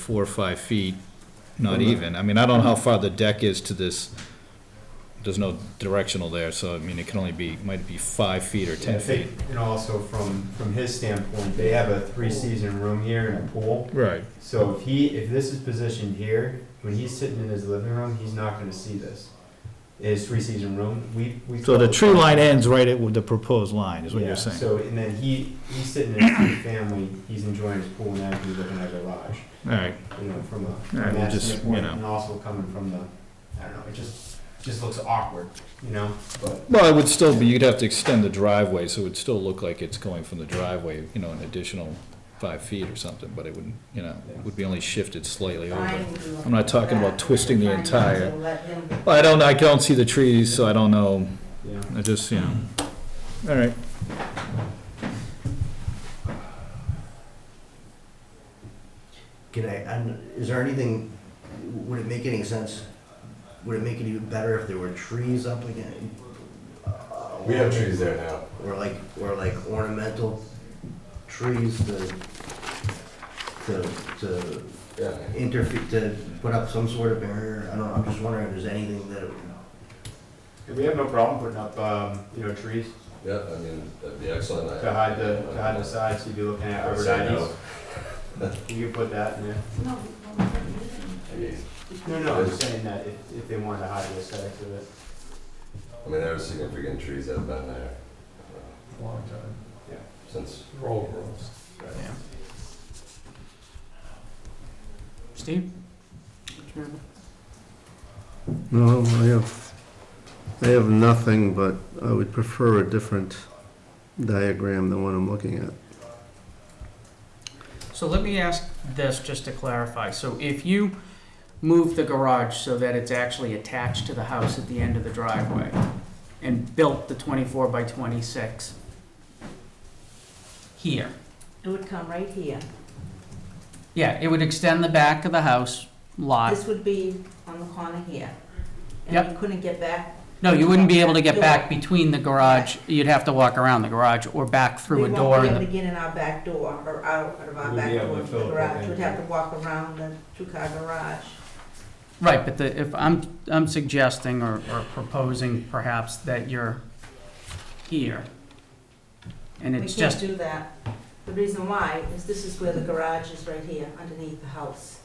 four or five feet, not even. I mean, I don't know how far the deck is to this, there's no directional there, so I mean, it can only be, might be five feet or I ten feet. think, and also from, from his standpoint, they have a three-season room here and a pool. Right. So if he, if this is positioned here, when he's sitting in his living room, he's not gonna see this. His three-season room, we, we. So the tree line ends right at with the proposed line, is what Yeah, you're saying? So, and then he, he's sitting in his three-family, he's enjoying his pool now, he's looking at a garage, All right, you know, from a, from Alright, we'll that just, you standpoint, know. and also coming from the, I don't know, it just, just looks awkward, you know, but. well, it would still be, you'd have to extend the driveway, so it would still look like it's going from the driveway, you know, an additional five feet or something, but it wouldn't, you know, it would be only shifted slightly over. I'm not talking about twisting the entire- Well, I don't, I don't see the trees, so I don't know, Yeah. I just, you know, all right. Can I, I'm- is there anything, would it make any sense, would it make it even better if there were trees up again? We have trees there now. Or like, or like ornamental trees to, to, to Yeah. interfere, to put up some sort of barrier? I don't know, I'm just wondering if there's anything that, We have no problem putting up, um, you know, trees Yeah, I mean, that'd be excellent. I- to hide the, to hide the sides, you'd be looking at I would say arborvitae's. no. You could put that in there. I mean, No, no, I'm just saying that if, if they wanted to hide the aesthetics of it. I mean, there are significant trees that have been there uh, Long time. since, They're all gross. Steve? No, I have, I have nothing, but I would prefer a different diagram than what I'm looking at. So let me ask this just to clarify. So if you move the garage so that it's actually attached to the house at the end of the driveway and built the 24 by 26 here, It would come right here. yeah, it would extend the back of the house lot. This would be on the corner here. Yep. And you couldn't get back. No, you wouldn't be able to get back between the garage. You'd have to walk around the garage or back through a door We won't be in able the, to get in our back door or out of our We'd be back able to door to the fill it garage. in. We'd have to walk around the two-car garage. right, but the, if I'm, I'm suggesting or, or proposing perhaps that you're here. And We it's can't just, do that. The reason why is this is where the garage is right here, underneath the house.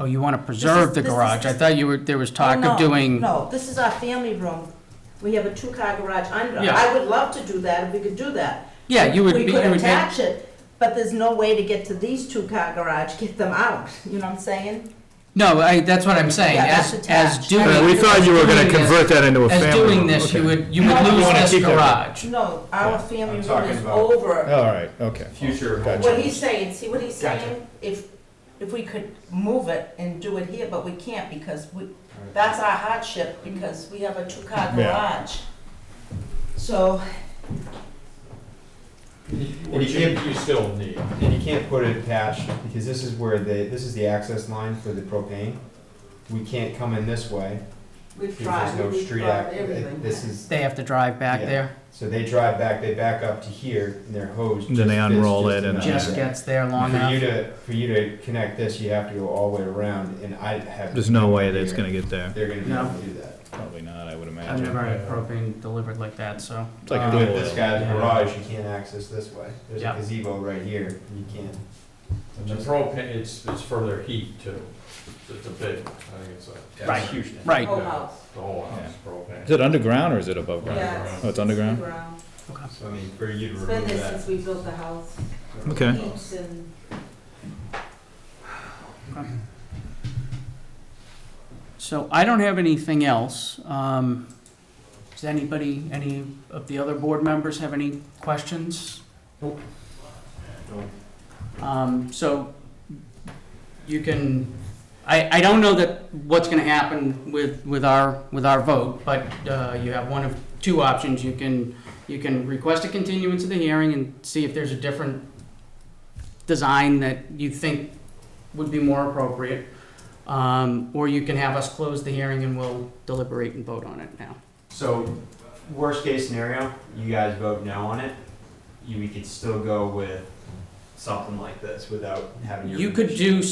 oh, you want to preserve the this is- garage. I thought you were, there was talk No, of doing. No, no, this is our family room. We have a two-car garage under. Yeah. I would love to do that if we could do that. Yeah, you would be, We you could would make, attach it, but there's no way to get to these two-car garage, get them out, you know what I'm saying? no, I, that's what I'm saying, Yeah, as, that's as attached. doing. Uh, we thought you were gonna doing this- convert that into a family As doing room, this, you okay. would, you would No, you lose wanna this keep that- garage. No, our family I'm room talking is about- over. All right, okay. Future Gotcha. What he's saying, see what he's Gotcha. saying? If, if we could move it and do it here, but we can't because we, that's our hardship because we have a two-car Yeah. garage. So, And Which you you can't, you still need. and you can't put it attached, because this is where the, this is the access line for the propane. We can't come in this way, we've because tried, there's no we've street tried act, uh, everything. this is, They have to drive back Yeah. there, so they drive back, they back up to here, and their hose. Then they just fits unroll just it and- enough. just gets there long For you enough. to, for you to connect this, you have to go all the way around, and I have. There's no way that it's gonna get there. They're gonna be No. able to do that. Probably not, I would imagine. I've never had propane delivered like that, so. It's like a um, With dual- this guy's Yeah. garage, you can't access this way, there's a Yeah. gazebo right here, you can't. And the propane, it's, it's for their heat too. It's a big, I think it's a. Right. Huge. thing. Right. Whole house. The whole house, Is propane. it underground or is it above ground? Yeah, it's- Oh, it's underground? underground. So I mean, for you to It's been remove there that. since we built the house. Okay. Heaps and So I don't have anything else. Um, does anybody, any of the other board members have any questions? Nope. Um, so you can, I, I don't know that what's gonna happen with, with our, with our vote, but, uh, you have one of two options. You can, you can request a continuance of the hearing and see if there's a different design that you think would be more appropriate. Um, or you can have us close the hearing and we'll deliberate and vote on it now. So, worst case scenario, you guys vote no on it, you, we could still go with something like this without having your. You could permission. do